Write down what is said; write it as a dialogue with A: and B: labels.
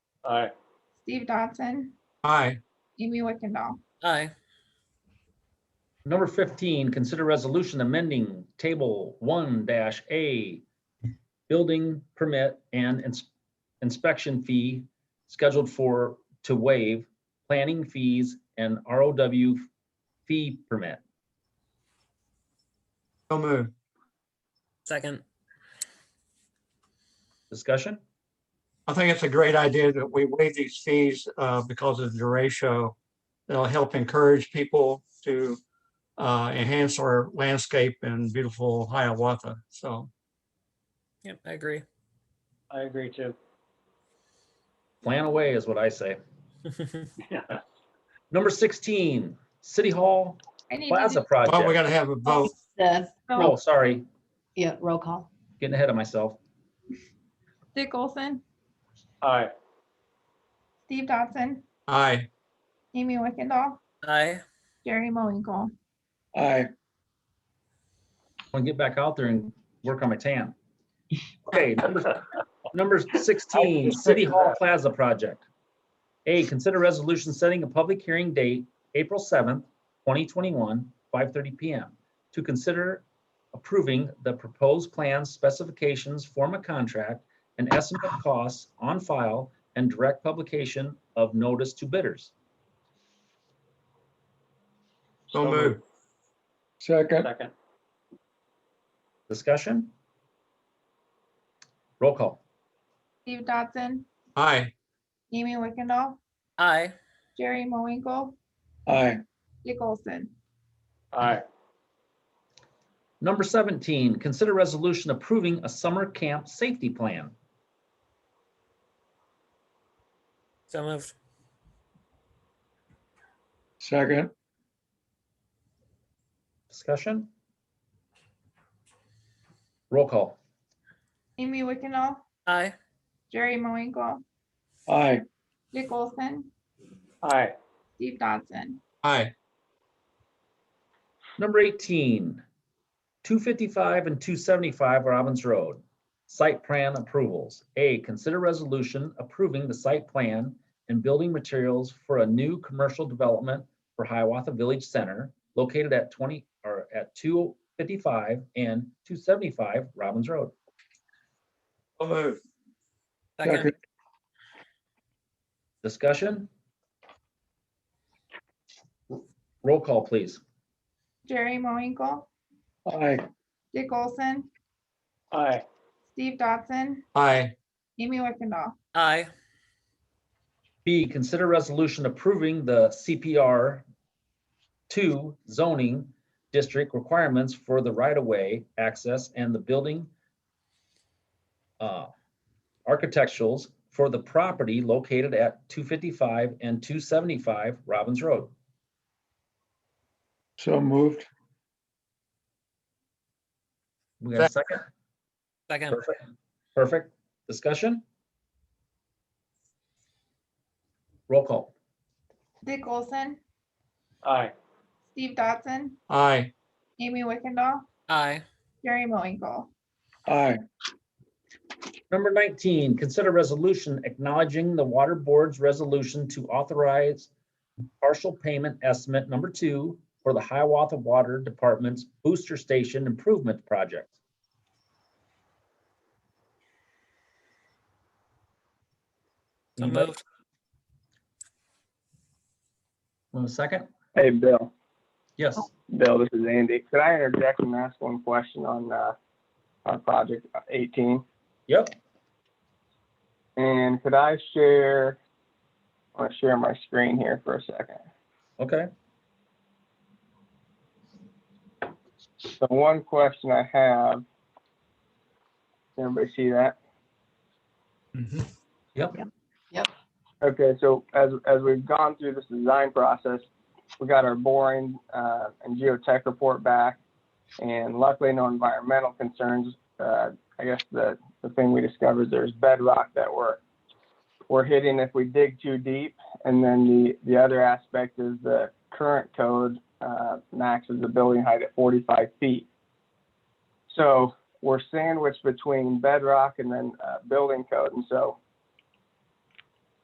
A: Aye.
B: Steve Dodson,
C: Aye.
B: Amy Wickendall.
D: Aye.
A: Number fifteen, consider resolution amending table one dash A, building permit and ins- inspection fee scheduled for, to waive planning fees and ROW fee permit.
C: So moved.
D: Second.
A: Discussion?
C: I think it's a great idea that we waive these fees uh, because of the duratio. It'll help encourage people to uh, enhance our landscape in beautiful Hiawatha. So
D: Yep, I agree.
E: I agree too.
A: Plan away is what I say. Number sixteen, City Hall
B: I need to
A: Plaza
B: do-
C: well, Oh, we
A: Project.
C: gotta have a vote.
F: The,
B: so,
A: Oh, sorry,
F: yeah, roll call.
A: getting ahead of myself.
B: Dick Olson,
E: Aye.
B: Steve Dodson,
C: Aye.
B: Amy Wickendall,
D: Aye.
B: Jerry Moinkle.
C: Aye.
A: i to get back out there and work on my tan. Okay, number, number sixteen, City Hall Plaza Project. A, consider resolution setting a public hearing date, April seventh, twenty twenty-one, five thirty PM. To consider approving the proposed plans, specifications, form of contract, and estimate of costs on file and direct publication of notice to bidders.
C: So moved.
G: Second,
E: Second.
A: Discussion? Roll call.
B: Steve Dodson,
C: Aye.
B: Amy Wickendall,
D: Aye.
B: Jerry Moinkle,
G: aye,
B: Dick Olson.
E: Aye.
A: Number 17, consider resolution approving a summer camp safety plan.
D: So moved.
G: second,
A: Discussion? Roll call.
B: Amy Wickendall,
D: Aye.
B: Jerry Moinkle,
G: aye,
B: Dick Olson,
E: Aye.
B: Steve Dodson.
C: Aye.
A: Number 18, 255 and 275 Robbins Road, site plan approvals. A, consider resolution approving the site plan and building materials for a new commercial development for Hiawatha Village Center located at 20, or at 255 and 275 Robbins Road.
C: So moved.
D: Second.
G: second,
A: Discussion? Roll call, please.
B: Jerry Moinkle,
G: aye,
B: Dick Olson,
E: Aye.
B: Steve Dodson,
C: Aye.
B: Amy Wickendall.
D: Aye.
A: B, consider resolution approving the CPR two zoning district requirements for the right-of-way access and the building uh, architecturals for the property located at 255 and 275 Robbins Road.
G: so moved,
A: We got a second?
D: Second.
A: Perfect. Perfect. Discussion? Roll call.
B: Dick Olson,
E: Aye.
B: Steve Dodson,
C: Aye.
B: Amy Wickendall,
D: Aye.
B: Jerry Moinkle.
G: aye,
A: Number 19, consider resolution acknowledging the Water Board's resolution to authorize partial payment estimate number two for the Hiawatha Water Department's Booster Station Improvement Project.
D: So
A: Anybody
D: moved.
A: Want a second?
H: Hey, Bill.
A: Yes.
H: Bill, this is Andy. Could I interject and ask one question on, uh, on project eighteen?
A: Yep.
H: And could I share, I want to share my screen here for a second.
A: Okay.
H: So one question I have. Can everybody see that?
G: Mm-hmm.
C: Mhm.
A: Yep.
H: Okay, so as, as we've gone through this design process, we got our boring, uh, and geotech report back. And luckily, no environmental concerns. Uh, I guess the, the thing we discovered, there's bedrock that we're, we're hitting if we dig too deep. And then the, the other aspect is the current code, uh, maxes the building height at 45 feet. So we're sandwiched between bedrock and then, uh, building code. And so